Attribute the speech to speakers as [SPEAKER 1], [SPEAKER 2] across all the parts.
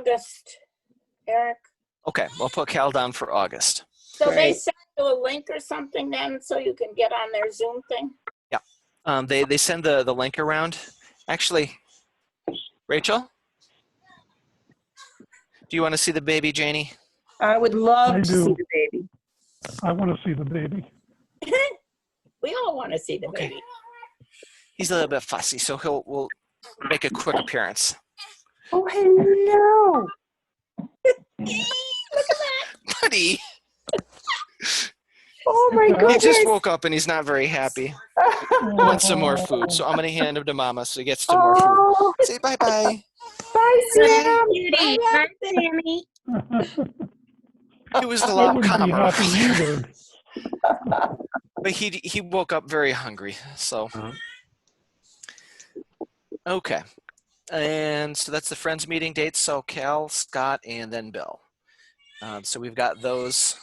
[SPEAKER 1] August, Eric.
[SPEAKER 2] Okay, we'll put Cal down for August.
[SPEAKER 1] So they
[SPEAKER 3] Right.
[SPEAKER 1] send you a link or something then, so you can get on their Zoom thing?
[SPEAKER 2] Um, they, they send the, the link around. Actually, Rachel? Do you want to see the baby, Janie?
[SPEAKER 3] I would love
[SPEAKER 4] I
[SPEAKER 3] to see
[SPEAKER 4] do.
[SPEAKER 3] the baby.
[SPEAKER 4] I want to see the baby.
[SPEAKER 1] We all want to see the
[SPEAKER 2] Okay.
[SPEAKER 1] baby.
[SPEAKER 2] He's a little bit fussy, so he'll will make a quick appearance.
[SPEAKER 3] Oh, hello.
[SPEAKER 2] Buddy,
[SPEAKER 3] Oh, my
[SPEAKER 4] He
[SPEAKER 2] he
[SPEAKER 3] goodness.
[SPEAKER 2] just woke up and he's not very happy. Wants some more food, so I'm gonna hand him to Mama so he gets some more food.
[SPEAKER 3] Oh,
[SPEAKER 2] Say bye bye.
[SPEAKER 3] bye, Sam.
[SPEAKER 1] Beauty. Hi, Sammy.
[SPEAKER 2] It was a
[SPEAKER 4] I
[SPEAKER 2] lot
[SPEAKER 4] wouldn't be
[SPEAKER 2] calmer
[SPEAKER 4] happy
[SPEAKER 2] earlier,
[SPEAKER 4] either.
[SPEAKER 2] but he he woke up very hungry. So okay, and so that's the friends meeting dates. So Cal, Scott, and then Bill. Um, so we've got those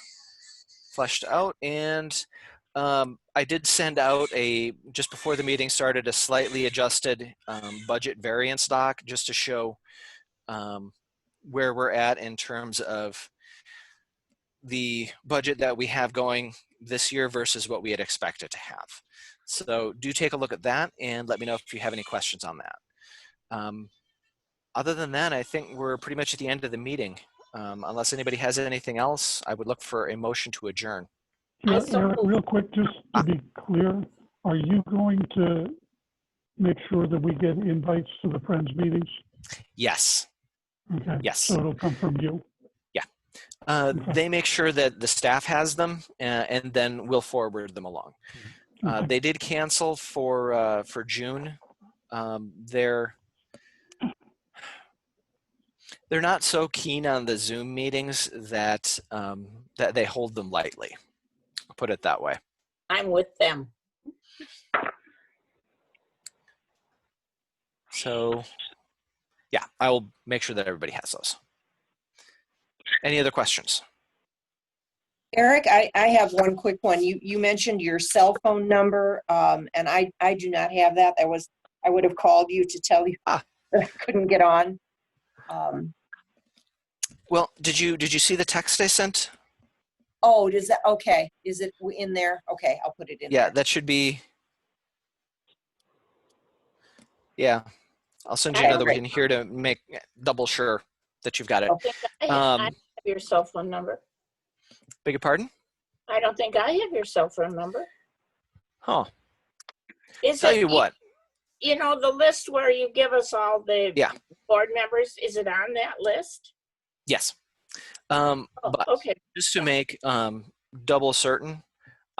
[SPEAKER 2] fleshed out, and um, I did send out a just before the meeting started a slightly adjusted um, budget variance doc just to show um, where we're at in terms of the budget that we have going this year versus what we had expected to have. So do take a look at that and let me know if you have any questions on that. Um, other than that, I think we're pretty much at the end of the meeting. Um, unless anybody has anything else, I would look for a motion to adjourn.
[SPEAKER 4] Yeah,
[SPEAKER 1] I saw-
[SPEAKER 4] Eric, real quick, just to be clear, are you going to make sure that we get invites to the Friends meetings?
[SPEAKER 2] Yes.
[SPEAKER 4] Okay.
[SPEAKER 2] Yes.
[SPEAKER 4] So it'll come from you.
[SPEAKER 2] Uh,
[SPEAKER 4] Okay.
[SPEAKER 2] they make sure that the staff has them uh, and then we'll forward them along. Uh,
[SPEAKER 4] Mm-hmm. Okay.
[SPEAKER 2] they did cancel for uh, for June. Um, they're they're not so keen on the Zoom meetings that um, that they hold them lightly. I'll put it that way.
[SPEAKER 1] I'm with them.
[SPEAKER 2] So, yeah, I will make sure that everybody has those. Any other questions?
[SPEAKER 3] Eric, I, I have one quick one. You, you mentioned your cell phone number, um, and I, I do not have that. That was, I would have called you to tell you
[SPEAKER 2] Ah.
[SPEAKER 3] I couldn't get on. Um,
[SPEAKER 2] Well, did you did you see the text I sent?
[SPEAKER 3] oh, does that, okay, is it in there? Okay, I'll put it in
[SPEAKER 2] Yeah,
[SPEAKER 3] there.
[SPEAKER 2] that should be. Yeah, I'll send you
[SPEAKER 3] Okay,
[SPEAKER 2] another
[SPEAKER 3] great.
[SPEAKER 2] one here to make double sure that you've got it.
[SPEAKER 3] Okay.
[SPEAKER 1] I I
[SPEAKER 2] Um,
[SPEAKER 1] have your cell phone number.
[SPEAKER 2] Beg your pardon?
[SPEAKER 1] I don't think I have your cell phone number.
[SPEAKER 2] Huh.
[SPEAKER 1] Is
[SPEAKER 2] Tell
[SPEAKER 1] it-
[SPEAKER 2] you what,
[SPEAKER 1] You know, the list where you give us all the
[SPEAKER 2] Yeah.
[SPEAKER 1] board members, is it on that list?
[SPEAKER 2] yes. Um,
[SPEAKER 1] Oh,
[SPEAKER 2] but
[SPEAKER 1] Okay,
[SPEAKER 2] just to make um, double certain,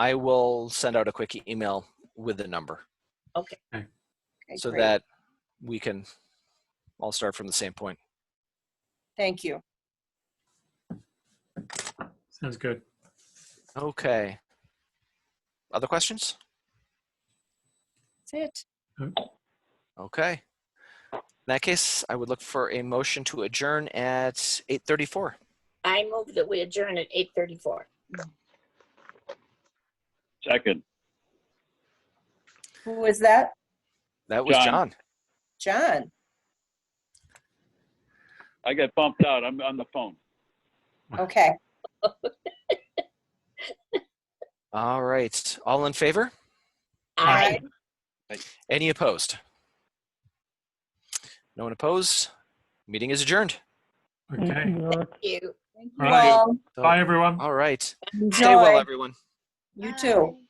[SPEAKER 2] I will send out a quick email with the number
[SPEAKER 3] Okay,
[SPEAKER 2] so
[SPEAKER 3] great.
[SPEAKER 2] that we can all start from the same point.
[SPEAKER 3] Thank you.
[SPEAKER 5] Sounds good.
[SPEAKER 2] Okay. Other questions?
[SPEAKER 3] That's it.
[SPEAKER 2] Okay. In that case, I would look for a motion to adjourn at 8:34.
[SPEAKER 1] I move that we adjourn at 8:34.
[SPEAKER 6] Second,
[SPEAKER 3] Who was that?
[SPEAKER 2] That was
[SPEAKER 6] John.
[SPEAKER 2] John.
[SPEAKER 3] John.
[SPEAKER 6] I got bumped out. I'm on the phone.
[SPEAKER 3] Okay.
[SPEAKER 2] All right. All in favor?
[SPEAKER 1] I
[SPEAKER 2] Any opposed? No one opposed? Meeting is adjourned.
[SPEAKER 4] Thank
[SPEAKER 5] Okay.
[SPEAKER 4] you, Eric.
[SPEAKER 1] you.
[SPEAKER 5] All right.
[SPEAKER 3] Well,
[SPEAKER 2] So-
[SPEAKER 5] Bye, everyone.
[SPEAKER 2] All right.
[SPEAKER 3] enjoy.
[SPEAKER 2] Stay well, everyone.
[SPEAKER 3] You too.